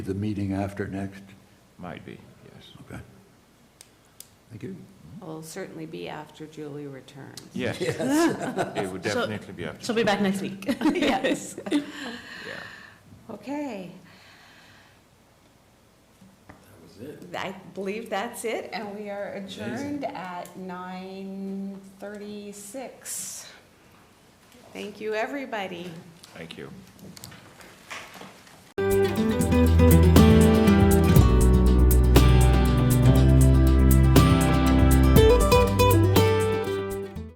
The meeting after next? Might be, yes. Okay. Thank you. Will certainly be after Julie returns. Yes, it would So- definitely be after, She'll be back next week. Yes. yeah. Okay. That was it. I believe that's it, and we are adjourned at 9:36. Thank you, everybody. Thank you.